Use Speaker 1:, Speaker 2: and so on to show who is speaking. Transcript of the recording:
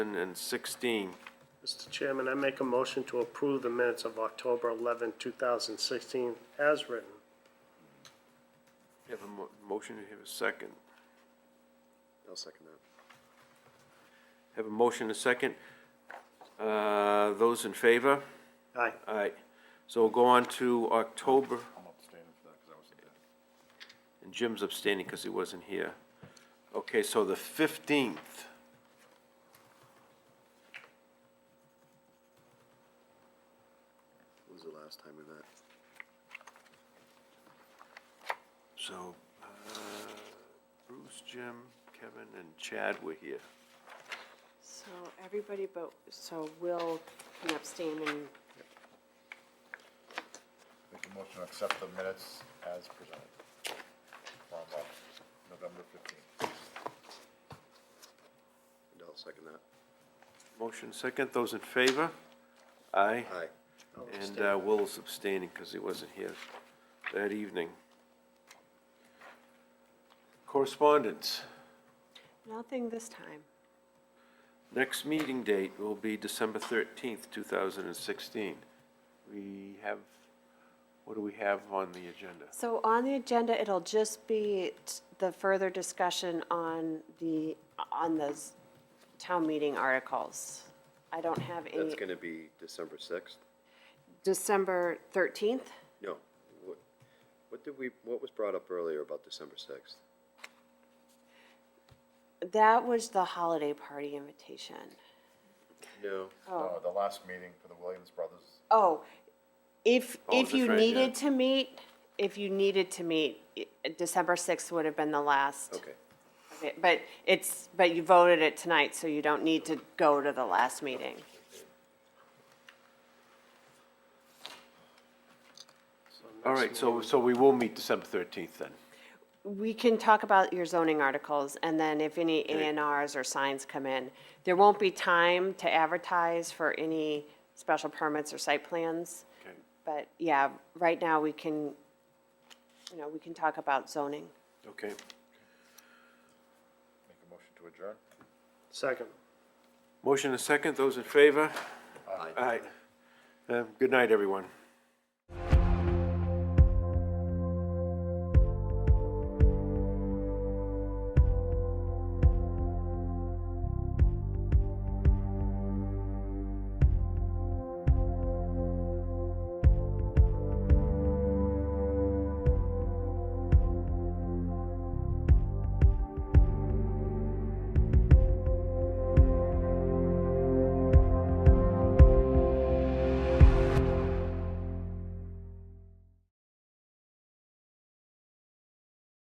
Speaker 1: and sixteen.
Speaker 2: Mr. Chairman, I make a motion to approve the minutes of October 11, 2016, as written.
Speaker 1: You have a mo- motion, you have a second.
Speaker 3: I'll second that.
Speaker 1: Have a motion, and a second. Uh, those in favor?
Speaker 2: Aye.
Speaker 1: All right, so we'll go on to October,
Speaker 3: I'm abstaining for that because I wasn't there.
Speaker 1: and Jim's abstaining because he wasn't here. Okay, so the fifteenth.
Speaker 3: When was the last time we met?
Speaker 1: So, uh, Bruce, Jim, Kevin, and Chad were here.
Speaker 4: So everybody but, so Will can abstain and
Speaker 5: Make a motion to accept the minutes as presented from uh, November 15th.
Speaker 3: And I'll second that.
Speaker 1: Motion second, those in favor? Aye.
Speaker 3: Aye.
Speaker 2: I'll
Speaker 1: And
Speaker 2: abstain.
Speaker 1: uh, Will's abstaining because he wasn't here that evening. Correspondence.
Speaker 4: nothing this time.
Speaker 1: Next meeting date will be December thirteenth, two thousand and sixteen. We have, what do we have on the agenda?
Speaker 4: So on the agenda, it'll just be t- the further discussion on the, on those town meeting articles. I don't have
Speaker 3: That's
Speaker 4: any,
Speaker 3: gonna be December sixth?
Speaker 4: December 13th?
Speaker 3: No. What, what did we, what was brought up earlier about December sixth?
Speaker 4: That was the holiday party invitation.
Speaker 3: No.
Speaker 5: Uh, The last meeting for the Williams Brothers
Speaker 4: Oh, if,
Speaker 1: Oh,
Speaker 4: if
Speaker 1: that's
Speaker 4: you
Speaker 1: right, yeah.
Speaker 4: needed to meet, if you needed to meet, i- December 6th would have been the last.
Speaker 3: Okay.
Speaker 4: Okay, But it's, but you voted it tonight, so you don't need to go to the last meeting.
Speaker 1: All right, so, so we will meet December thirteenth then.
Speaker 4: We can talk about your zoning articles, and then if any A and Rs or signs come in, there won't be time to advertise for any special permits or site plans.
Speaker 1: Okay.
Speaker 4: But yeah, right now, we can, you know, we can talk about zoning.
Speaker 1: Okay.
Speaker 5: make a motion to adjourn.
Speaker 2: Second.
Speaker 1: Motion and second, those in favor?
Speaker 3: Aye.
Speaker 1: Aye. Uh, Good night, everyone.